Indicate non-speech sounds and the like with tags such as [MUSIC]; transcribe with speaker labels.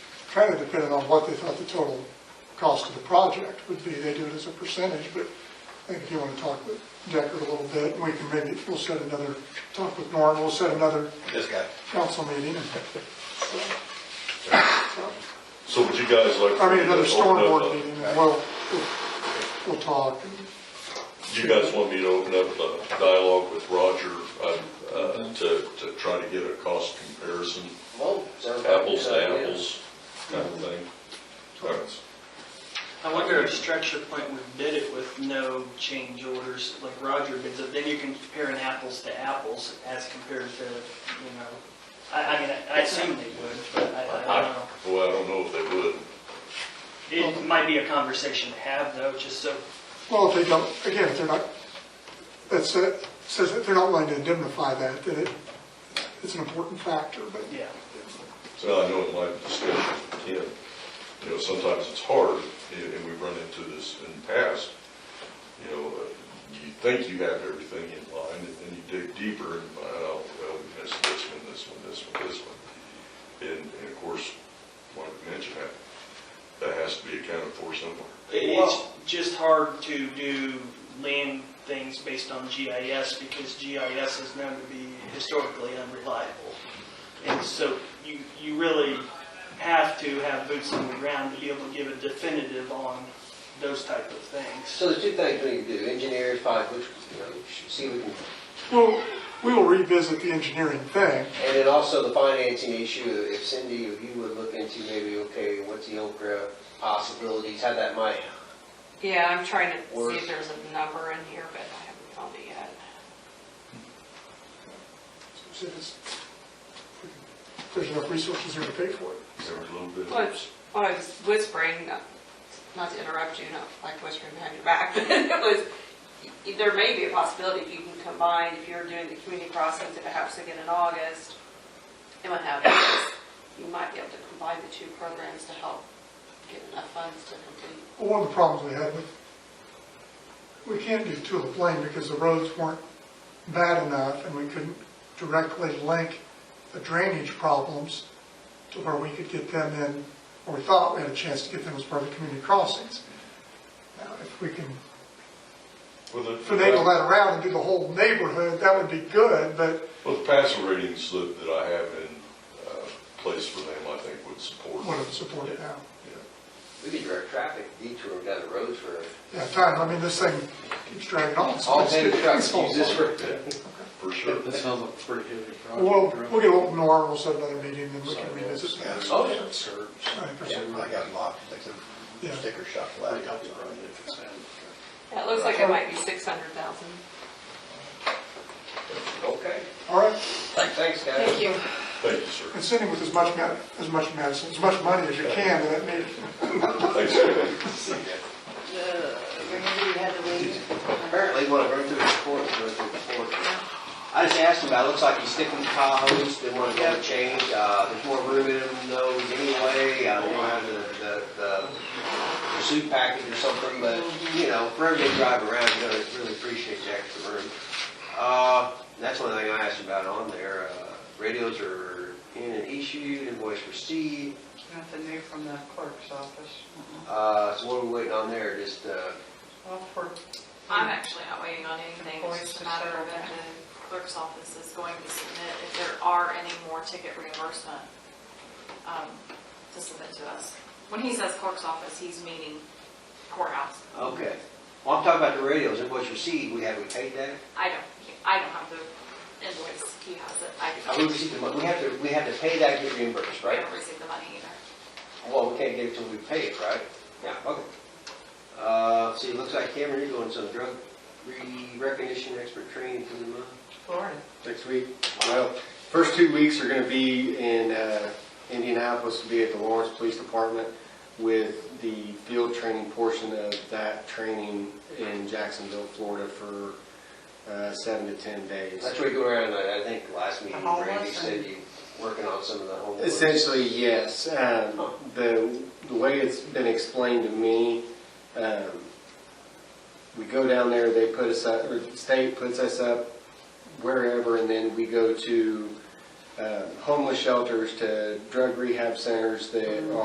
Speaker 1: kind of depended on what they thought the total cost of the project would be. They do it as a percentage, but I think if you want to talk with Decker a little bit, we can maybe, we'll set another, talk with Norm, we'll set another
Speaker 2: This guy.
Speaker 1: council meeting.
Speaker 3: So would you guys like?
Speaker 1: I mean, another
Speaker 3: to open up
Speaker 1: stormboard
Speaker 3: a-
Speaker 1: meeting, and we'll, we'll- we'll talk.
Speaker 3: Do you guys want me to open up a dialogue with Roger um, uh, to, to try to get a cost comparison,
Speaker 2: Well, sounds like a
Speaker 3: apples
Speaker 2: good
Speaker 3: to
Speaker 2: idea.
Speaker 3: apples kind of thing? All right.
Speaker 4: I wonder if Structure Point would bid it with no change orders, like Roger bids it, then you can compare an apples to apples as compared to, you know, I, I mean, I assume they would, but I, I don't know.
Speaker 3: Well, I don't know if they would.
Speaker 4: It might be a conversation to have though, just so,
Speaker 1: Well, if they don't, again, if they're not, that's, it says that they're not willing to indemnify that, then it, it's an important factor, but
Speaker 4: yeah.
Speaker 3: So I know in my discussion with Ken, you know, sometimes it's hard, and and we've run into this in the past. You know, uh, you think you have everything in line, and then you dig deeper and find out, well, we missed this one, this one, this one, this one. And, and of course, like I mentioned, that, that has to be accounted for somewhere.
Speaker 4: It's just hard to do land things based on GIS because GIS is known to be historically unreliable. And so you, you really have to have boots on the ground to be able to give a definitive on those type of things.
Speaker 2: So there's two things we need to do, engineer, find which, you know, we should see if we can,
Speaker 1: we'll, we will revisit the engineering thing.
Speaker 2: and then also the financing issue, if Cindy, if you would look into maybe, okay, what's the Okra possibilities, how that might,
Speaker 5: Yeah, I'm trying to see
Speaker 2: Worth.
Speaker 5: if there's a number in here, but I haven't found it yet.
Speaker 1: See if it's- if There's enough resources here to pay for it.
Speaker 3: There was a little bit.
Speaker 5: Well, it's- well, I was whispering, not- not to interrupt you, not like whispering behind your back, [LAUGHS] but it was, y- there may be a possibility if you can combine, if you're doing the community crossings, if it happens again in August, and what happens, you might be able to combine the two programs to help get enough funds to complete.
Speaker 1: Well, One of the problems we had with, we can't do Tulip Lane because the roads weren't bad enough and we couldn't directly link the drainage problems to where we could get them in, or we thought we had a chance to get them as part of the community crossings. Now, if we can
Speaker 3: Well, the-
Speaker 1: finagle that around and do the whole neighborhood, that would be good, but
Speaker 3: Well, the passing ratings that, that I have in uh, place for them, I think would support.
Speaker 1: wouldn't support it now.
Speaker 3: Yeah.
Speaker 2: we could direct traffic detour down the road for,
Speaker 1: Yeah, time, I mean, this thing keeps dragging on. so
Speaker 2: all
Speaker 1: let's
Speaker 2: day
Speaker 1: get
Speaker 2: trucks
Speaker 1: this whole-
Speaker 2: use this for,
Speaker 3: Yeah, for sure.
Speaker 6: That sounds like a pretty heavy project.
Speaker 1: We'll, we'll get open norm, we'll set another meeting, and we can revisit that.
Speaker 2: Oh, yeah.
Speaker 1: I think that's-
Speaker 7: I got locked, like
Speaker 1: Yeah.
Speaker 7: a sticker shock laptop.
Speaker 5: Yeah, It looks like it might be 600,000.
Speaker 2: okay,
Speaker 1: All right,
Speaker 2: thanks, guys.
Speaker 5: Thank you.
Speaker 3: Thank you, sir.
Speaker 1: and send him with as much, ma- as much medicine, as much money as you can, that may,
Speaker 3: Thanks, Kevin.
Speaker 2: Apparently, what I've run through before, I've run through before. I just asked about, it looks like he's sticking with Tahoe's, they want to go to change, uh, there's more room in them those anyway, uh, I don't know how the, the, the pursuit package or something, but, you know, for every drive around, you know, it's really appreciate the extra room. Uh, that's one thing I asked about on there, uh, radios are in and issued, invoice received,
Speaker 8: Nothing new from the clerk's office. Uh-uh.
Speaker 2: uh, so what are we waiting on there, just, uh,
Speaker 8: Well, for,
Speaker 5: I'm actually not waiting on anything, it's
Speaker 8: Voice
Speaker 5: just
Speaker 8: to
Speaker 5: a matter
Speaker 8: serve.
Speaker 5: of if the clerk's office is going to submit, if there are any more ticket reimbursement, um, to submit to us. When he says clerk's office, he's meaning courthouse.
Speaker 2: okay. Well, I'm talking about the radios, invoice received, we have, we paid that?
Speaker 5: I don't, I don't have the invoice, he has it, I
Speaker 2: Uh, We received the money, we have to, we have to pay that, and get reimbursed, right?
Speaker 5: haven't received the money either.
Speaker 2: Well, we can't get it till we pay it, right? Yeah. Okay. Uh, see, it looks like Cameron, you're doing some drug re-recognition expert training for the month.
Speaker 8: Florida.
Speaker 9: next week. Well, first two weeks are going to be in uh, Indianapolis, to be at the Lawrence Police Department with the field training portion of that training in Jacksonville, Florida for uh, seven to 10 days.
Speaker 2: That's where you go around, I I think, last meeting,
Speaker 8: The homeless
Speaker 2: Randy said
Speaker 8: and-
Speaker 2: you working on some of the homeless.
Speaker 9: Essentially, yes. Um, The, the way it's been explained to me, um, we go down there, they put us up, or the state puts us up wherever, and then we go to um, homeless shelters, to drug rehab centers that are